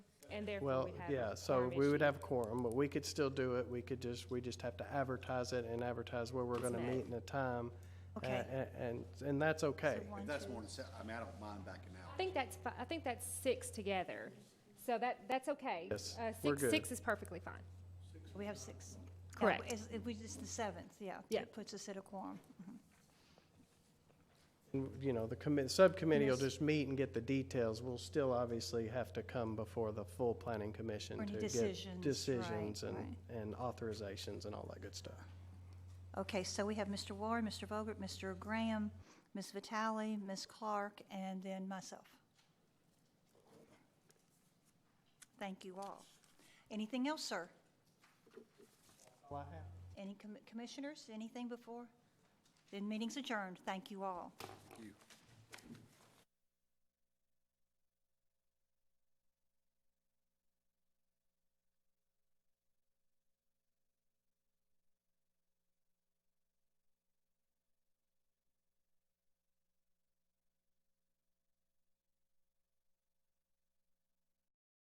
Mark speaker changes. Speaker 1: and therefore
Speaker 2: Well,
Speaker 1: we'd have. a
Speaker 2: yeah, so
Speaker 1: quorum
Speaker 2: we would
Speaker 1: issue.
Speaker 2: have quorum, but we could still do it. We could just, we just have to advertise it and advertise where we're gonna
Speaker 1: Exactly.
Speaker 2: meet and the time. a-
Speaker 3: Okay.
Speaker 2: a- And, and that's okay.
Speaker 3: One,
Speaker 4: If that's
Speaker 3: two.
Speaker 4: more than, se- I mean, I don't mind backing
Speaker 1: I
Speaker 4: out.
Speaker 1: think that's, fi- I think that's six together. So that, that's okay.
Speaker 2: Yes,
Speaker 1: Uh,
Speaker 2: we're
Speaker 1: six-
Speaker 2: good.
Speaker 1: Six is perfectly fine.
Speaker 3: We have six. Yeah,
Speaker 1: Correct.
Speaker 3: It's, it- we- it's the seventh, yeah.
Speaker 1: Yeah.
Speaker 3: It puts us at a quorum.
Speaker 2: You know, the commit, subcommittee will
Speaker 3: Yes.
Speaker 2: just meet and get the details. We'll still obviously have to come before the full planning commission
Speaker 3: For
Speaker 2: to
Speaker 3: any
Speaker 2: get
Speaker 3: decisions, right,
Speaker 2: decisions and,
Speaker 3: right.
Speaker 2: and authorizations and all that good stuff.
Speaker 3: Okay, so we have Mr. Ward, Mr. Vogel, Mr. Graham, Ms. Vitale, Ms. Clark, and then myself. Thank you all. Anything else, sir? Any commi- commissioners, anything before? Then meeting's adjourned. Thank you all.
Speaker 4: Thank you.